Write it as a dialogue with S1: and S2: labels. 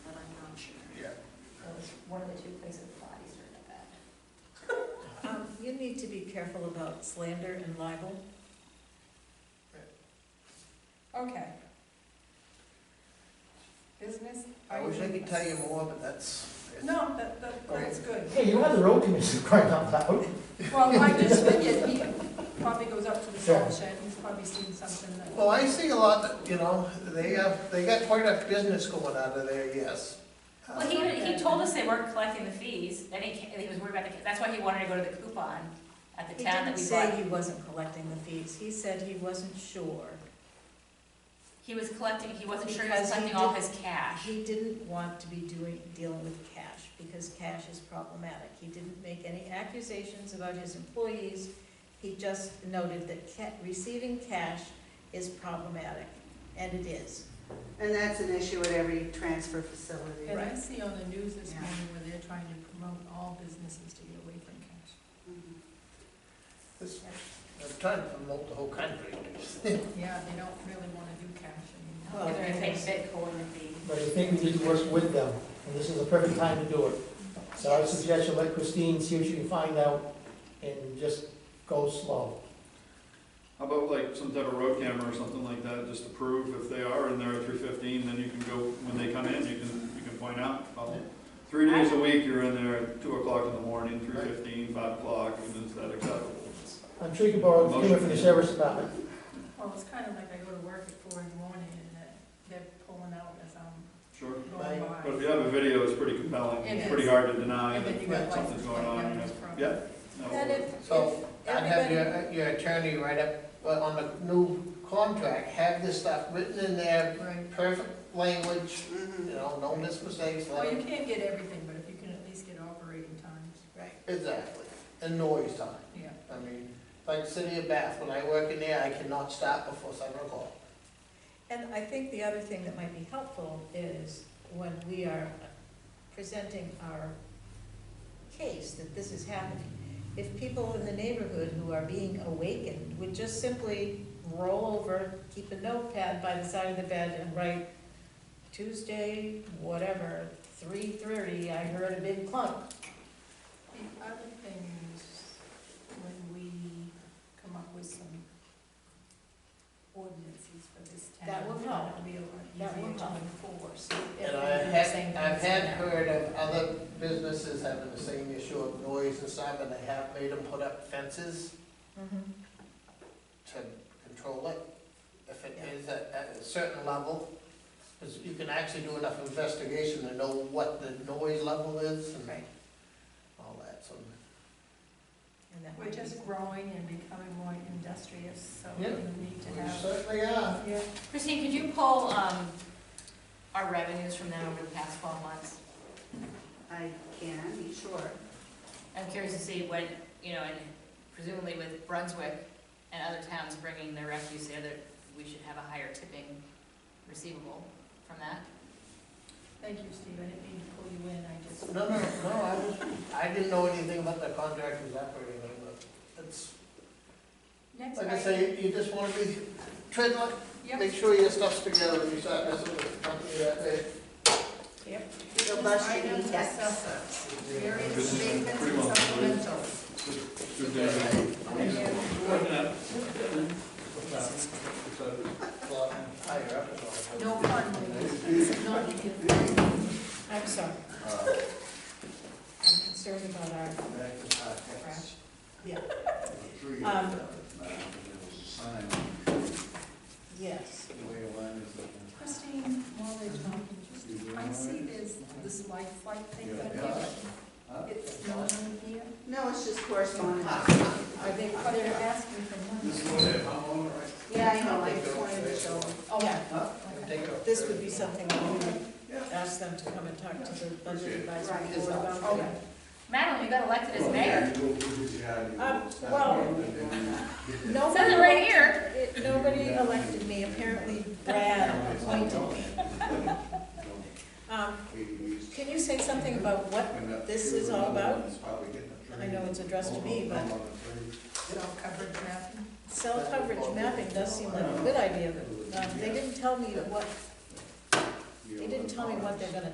S1: to be careful about slander and libel.
S2: Okay. Business?
S3: I wish I could tell you more, but that's. it's-
S2: No, that, that, that's good.
S4: Hey, you had the road commission crying out loud.
S2: Well, I just figured he probably goes up to the salt shed, he's probably seen something that,
S3: Well, I see a lot that, you know, they have, they got quite a business going out of there, yes. Uh,
S5: Well, he, he told us they weren't collecting the fees, and he, ca- he was worried about the, that's why he wanted to go to the coupon at the
S1: He
S5: town
S1: didn't
S5: that we
S1: say
S5: bought.
S1: he wasn't collecting the fees, he said he wasn't sure.
S5: He was collecting, he wasn't sure he
S1: Because
S5: was
S1: he
S5: collecting all
S1: did-
S5: his cash.
S1: He didn't want to be doing, dealing with cash, because cash is problematic. He didn't make any accusations about his employees, he just noted that ca- receiving cash is problematic, and it is.
S6: And that's an issue at every transfer facility.
S2: and I
S1: Right.
S2: see on the news this morning where they're trying to promote all businesses to get away from cash.
S6: Mhm.
S3: This- I'm trying to promote the whole country.
S2: Yeah, they don't really wanna do cash anymore.
S1: Well,
S5: They're gonna pay Bitcoin the fee.
S4: But I think we need to work with them, and this is the perfect time to do it. So I would suggest you let Christine see what she can find out, and just go slow.
S7: How about like some type of road camera or something like that, just to prove if they are in there at three fifteen, then you can go, when they come in, you can, you can point out. oh, Three days a week, you're in there at two o'clock in the morning, three fifteen, five o'clock, and is that acceptable?
S4: I'm sure you can borrow the camera from the sheriff's department.
S2: Well, it's kind of like I go to work at four in the morning and that they're pulling out as I'm
S7: Sure,
S2: going by.
S7: but if you have a video, it's pretty compelling,
S2: It
S7: it's
S2: is.
S7: pretty hard to deny
S2: And then you
S7: that
S2: got
S7: something's
S2: license plate
S1: Uh,
S7: going on, you know.
S2: numbers from.
S7: yeah. no,
S1: And if,
S3: So
S1: if
S3: I'd have
S1: everybody,
S3: your, your attorney write up, well, on the new contract, have this stuff written in there,
S2: Right.
S3: perfect language, you
S6: Mhm.
S3: know, no mistakes,
S2: Well, you
S3: like,
S2: can't get everything, but if you can at least get operating times.
S1: right,
S3: exactly, and noise time.
S2: Yeah.
S3: I mean, like City of Bath, when I work in there, I cannot stop before seven o'clock.
S1: and I think the other thing that might be helpful is when we are presenting our case that this is happening, if people in the neighborhood who are being awakened would just simply roll over, keep a notepad by the side of the bed and write Tuesday, whatever, three thirty, I heard a big clunk.
S2: The other thing is, when we come up with some ordinances for this town.
S1: That will help.
S2: It'll be a lot
S1: That will
S2: easier to
S1: help.
S2: enforce.
S3: And I
S2: Everything
S3: have,
S2: saying
S3: I've
S2: things
S3: had
S2: now.
S3: heard of other businesses having the same issue of noise and stuff, and they have made them put up fences
S1: Mm-hmm.
S3: to control it, if it is at, at a certain level. Because you can actually do enough investigation to know what the noise level is and
S1: Right.
S3: all that, so.
S1: And that
S2: We're
S1: might be-
S2: just growing and becoming more industrious, so we
S3: Yeah.
S2: need to
S3: We
S2: have.
S3: certainly are.
S2: Yeah.
S5: Christine, could you pull, um, our revenues from them over the past twelve months?
S6: I can, sure.
S5: I'm curious to see when, you know, and presumably with Brunswick and other towns bringing their refuse there, that we should have a higher tipping receivable from that.
S2: Thank you, Steve, I didn't mean to pull you in, I just.
S3: No, no, no, I was, I didn't know anything about the contractors operating, but it's,
S2: Next
S3: like I
S2: item.
S3: say, you just wanna be, tread like,
S2: Yep.
S3: make sure your stuff's together when you start messing with the company that day.
S6: You'll bust your
S2: Item
S6: knee, yes.
S2: assessor. Various
S7: This is
S2: statements
S7: pretty
S2: and
S7: well-
S2: supplementals.
S7: Good day. Looking at-
S3: Well, higher up and all.
S2: No fun, please. Not in-
S1: I'm sorry. I'm concerned about our trash. Yeah. Um, Yes.
S2: Christine, while they're talking, just, I see there's this light flight thing that they, it's not in here.
S6: No, it's just correspondence.
S2: Are they, are they asking for money?
S6: Yeah, I know, I just wanted to show.
S1: oh, Yeah,
S3: Take it off.
S1: this would be something that we would ask them to come and talk to the budget advisory board about. Oh,
S2: Okay.
S5: Madeline, you got elected as mayor.
S1: Um, well,
S5: It says it
S1: nobody,
S5: right here.
S1: it- nobody elected me, apparently Brad appointed me. Um, Can you say something about what, this is all about? I know it's addressed to me, but
S2: Self-covered mapping?
S1: cell coverage mapping does seem like a good idea, but um, they didn't tell me what, they didn't tell me what they're gonna